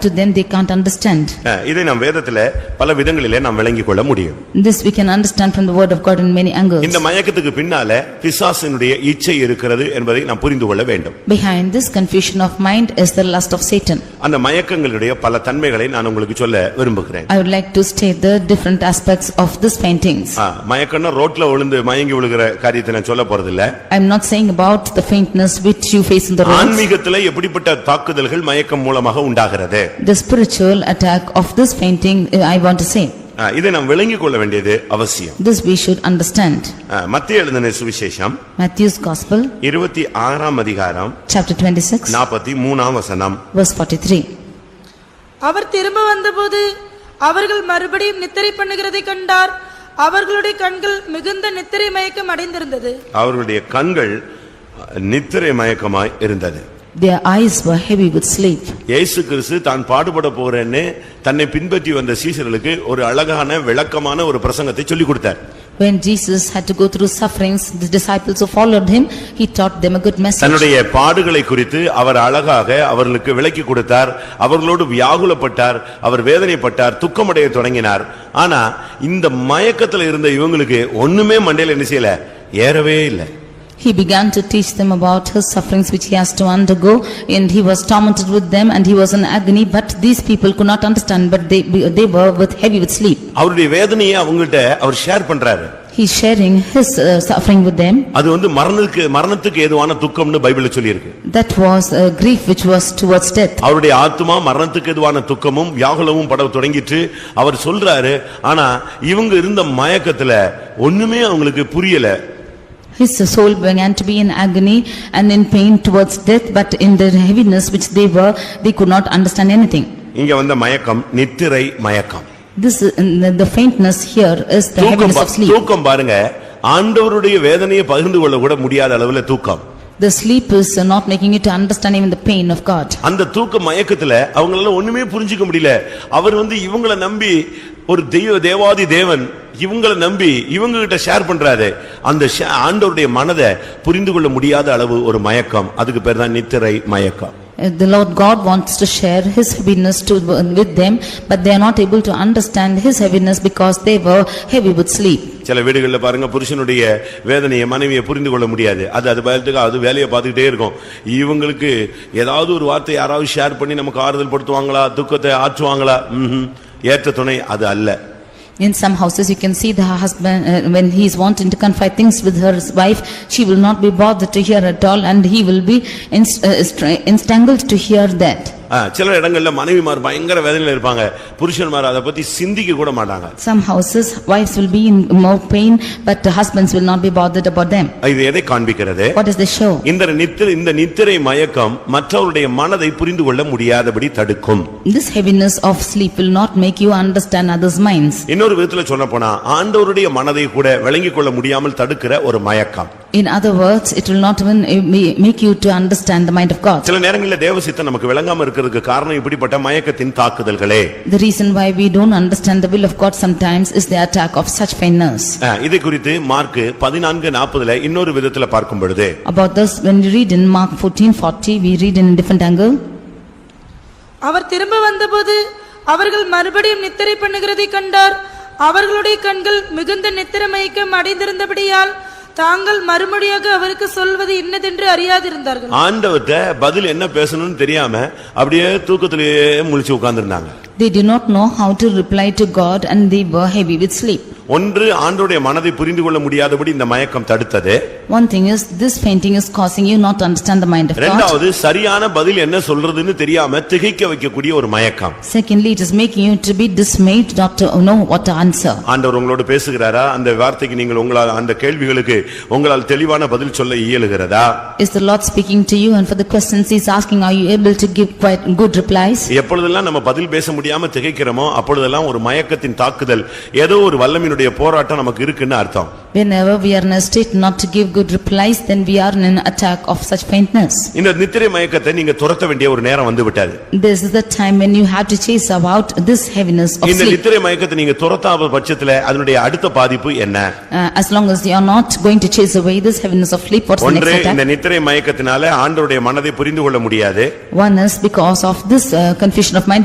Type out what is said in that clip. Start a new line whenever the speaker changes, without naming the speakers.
to them they can't understand.
அஹ், இதை நாம் வேதத்திலே பல விதங்களிலே நாம் விளங்கிக் கொள்ள முடியும்
This we can understand from the word of God in many angles.
இந்த மயக்கத்துக்கு பின்னாலே பிசாசினுடைய இச்சை இருக்கிறது என்பதை நாம் புரிந்து கொள்ள வேண்டும்
Behind this confusion of mind is the lust of Satan.
அந்த மயக்கங்களுடைய பல தன்மைகளை நான் உங்களுக்கு சொல்ல விரும்புகிறேன்
I would like to state the different aspects of these faintings.
ஆ, மயக்கம்னா ரோட்ல விழுந்து மயங்கி விழுகிற காரியத்தை நான் சொல்ல போறதில்ல
I am not saying about the faintness which you face in the roads.
ஆன்மீகத்துல எப்படிப்பட்ட தாக்குதல்கள் மயக்கம் மூலமாக உண்டாகிறது
The spiritual attack of this fainting, uh, I want to say.
ஆ, இதை நாம் விளங்கிக் கொள்ள வேண்டியது அவசியம்
This we should understand.
ஆ, மத்திய எழுதின சுவிசேஷம்
Matthew's Gospel,
இருபத்தி ஆறாம் அதிகாரம்
chapter 26,
நாற்பத்தி மூணாம் வசனம்
verse 43.
அவர் திரும்ப வந்தபோது அவர்கள் மறுபடியும் நித்திரை பண்ணுகிறதை கண்டார் அவர்களுடைய கண்கள் மிகுந்த நித்திரை மயக்கம் அடைந்திருந்தது
அவர்களுடைய கண்கள் நித்திரை மயக்கமாய் இருந்தது
Their eyes were heavy with sleep.
இயேசு கிறிஸ்து தான் பாடுபட போறேன்னு தன்னை பின்பற்றி வந்த சீசர்களுக்கு ஒரு அழகான விளக்கமான ஒரு பிரசங்கத்தை சொல்லிக் கொடுத்தார்
When Jesus had to go through sufferings, the disciples who followed him, he taught them a good message.
தன்னுடைய பாடுகளை குறித்து அவர் அழகாக அவர்களுக்கு விளக்கி கொடுத்தார் அவர்களோடு வியாகுலப்பட்டார் அவர் வேதனைப்பட்டார் துக்கமடைய தொடங்கினார் ஆனா இந்த மயக்கத்துல இருந்த இவங்களுக்கு ஒண்ணுமே மண்டையில என்ன செய்யல ஏறவே இல்லை
He began to teach them about his sufferings which he has to undergo and he was tormented with them and he was in agony but these people could not understand but they, they were with heavy with sleep.
அவருடைய வேதனையை அவங்கள்ட்ட அவர் share பண்றாரு
He's sharing his uh, suffering with them.
அது வந்து மரணத்துக்கு மரணத்துக்கு ஏதுவான துக்கம்னு பைபிள்ல சொல்லியிருக்கு
That was uh, grief which was towards death.
அவருடைய ஆத்துமா மரணத்துக்கு எதுவான துக்கமும் வியாகுலமும் பட தொடங்கிட்டு அவர் சொல்றாரு ஆனா இவங்க இருந்த மயக்கத்துல ஒண்ணுமே அவங்களுக்கு புரியல
His soul began to be in agony and in pain towards death but in their heaviness which they were, they could not understand anything.
இங்க வந்த மயக்கம் நித்திரை மயக்கம்
This, is- and the the faintness here is the
தூக்கம்
heaviness
பா-
of sleep.
தூக்கம் பாருங்க ஆண்டவருடைய வேதனையை பகிர்ந்து கொள்ள கூட முடியாத அளவுல தூக்கம்
The sleep is not making you to understand even the pain of God.
அந்த தூக்க மயக்கத்துல அவங்களால ஒண்ணுமே புரிஞ்சுக்க முடியல அவர் வந்து இவங்கள நம்பி ஒரு தெய்வ தேவாதி தேவன் இவங்கள நம்பி இவங்க கிட்ட ஷேர் பண்றாரு அந்த ஷே- ஆண்டவருடைய மனதை புரிந்து கொள்ள முடியாத அளவு ஒரு மயக்கம் அதுக்கு பேர் தான் நித்திரை மயக்கம்
Uh, The Lord God wants to share his heaviness to, with them, but they are not able to understand his heaviness because they were heavy with sleep.
சில வீடுகள்ல பாருங்க புருஷனுடைய வேதனையை மனைவியை புரிந்து கொள்ள முடியாது அது அது பயத்துக்கு அது வேலையை பார்த்துக்கிட்டே இருக்கும் இவங்களுக்கு ஏதாவது ஒரு வார்த்தை யாராவது ஷேர் பண்ணி நமக்கு ஆறுதல் படுத்துவாங்களா துக்கத்தை ஆற்றுவாங்களா ம்ஹும். ஏற்ற துணை அது அல்ல
In some houses, you can see the husband, uh, when he is wanting to confide things with her wife, she will not be bothered to hear at all and he will be inst- uh, stra- entangled to hear that.
ஆ, சில இடங்கள்ல மனைவிமார் பயங்கர வேதனையில இருப்பாங்க புருஷன்மார் அதை பத்தி சிந்திக்க கூட மாட்டாங்க
Some houses, wives will be in more pain, but the husbands will not be bothered about them.
இது எதை காண்பிக்கிறது
What does this show?
இந்த நித்திரை இந்த நித்திரை மயக்கம் மற்றவருடைய மனதை புரிந்து கொள்ள முடியாதபடி தடுக்கும்
This heaviness of sleep will not make you understand others' minds.
இன்னொரு விதத்துல சொல்ல போனா ஆண்டவருடைய மனதை கூட விளங்கிக் கொள்ள முடியாமல் தடுக்கிற ஒரு மயக்கம்
In other words, it will not even eh, ma- make you to understand the mind of God.
சில நேரங்களில் தேவ சித்தம் நமக்கு விளங்காம இருக்கிறதுக்கு காரணம் இப்படிப்பட்ட மயக்கத்தின் தாக்குதல்களே
The reason why we don't understand the will of God sometimes is the attack of such faintness.
ஆ, இதை குறித்து மார்க் பதினான்கு நாற்பதுல இன்னொரு விதத்துல பார்க்கும் பொழுது
About this, when we read in Mark 14:40, we read in a different angle.
அவர் திரும்ப வந்தபோது அவர்கள் மறுபடியும் நித்திரை பண்ணுகிறதை கண்டார் அவர்களுடைய கண்கள் மிகுந்த நித்திரை மயக்கம் அடைந்திருந்தபடியால் தாங்கள் மறுமொழியாக அவருக்கு சொல்வது இன்னதென்று அறியாதிருந்தார்கள்
ஆண்டவர்கிட்ட பதில் என்ன பேசணும்னு தெரியாம அப்படியே தூக்கத்திலேயே முழிச்சு உட்கார்ந்திருந்தாங்க
They did not know how to reply to God and they were heavy with sleep.
ஒன்று ஆண்டோடைய மனதை புரிந்து கொள்ள முடியாதபடி இந்த மயக்கம் தடுத்தது
One thing is, this fainting is causing you not to understand the mind of God.
இரண்டாவது சரியான பதில் என்ன சொல்றதுன்னு தெரியாம திகைக்க வைக்கக்கூடிய ஒரு மயக்கம்
Secondly, it is making you to be dismayed, not to know what to answer.
ஆண்டவர் உங்களோடு பேசுகிறாரா அந்த வார்த்தைக்கு நீங்கள் உங்களால் அந்த கேள்விகளுக்கு உங்களால் தெளிவான பதில் சொல்ல இயலுகிறதா
Is the Lord speaking to you and for the questions he's asking, are you able to give quite good replies?
எப்பொழுதெல்லாம் நம்ம பதில் பேச முடியாம திகைக்கிறோமோ அப்பொழுதெல்லாம் ஒரு மயக்கத்தின் தாக்குதல் ஏதோ ஒரு வல்லமினுடைய போராட்டம் நமக்கு இருக்குன்னு அர்த்தம்
Whenever we are in a state not to give good replies, then we are in an attack of such faintness.
இந்த நித்திரை மயக்கத்தை நீங்க துரத்த வேண்டிய ஒரு நேரம் வந்து விட்டது
This is the time when you have to chase about this heaviness of
இந்த
sleep.
நித்திரை மயக்கத்தை நீங்க துரத்தாத பட்சத்துல அதனுடைய அடுத்த பாதிப்பு என்ன
Uh, As long as you are not going to chase away this heaviness of sleep, what's the next
ஒன்று இந்த
attack?
நித்திரை மயக்கத்தினால ஆண்டவருடைய மனதை புரிந்து கொள்ள முடியாது
One is because of this uh, confusion of mind,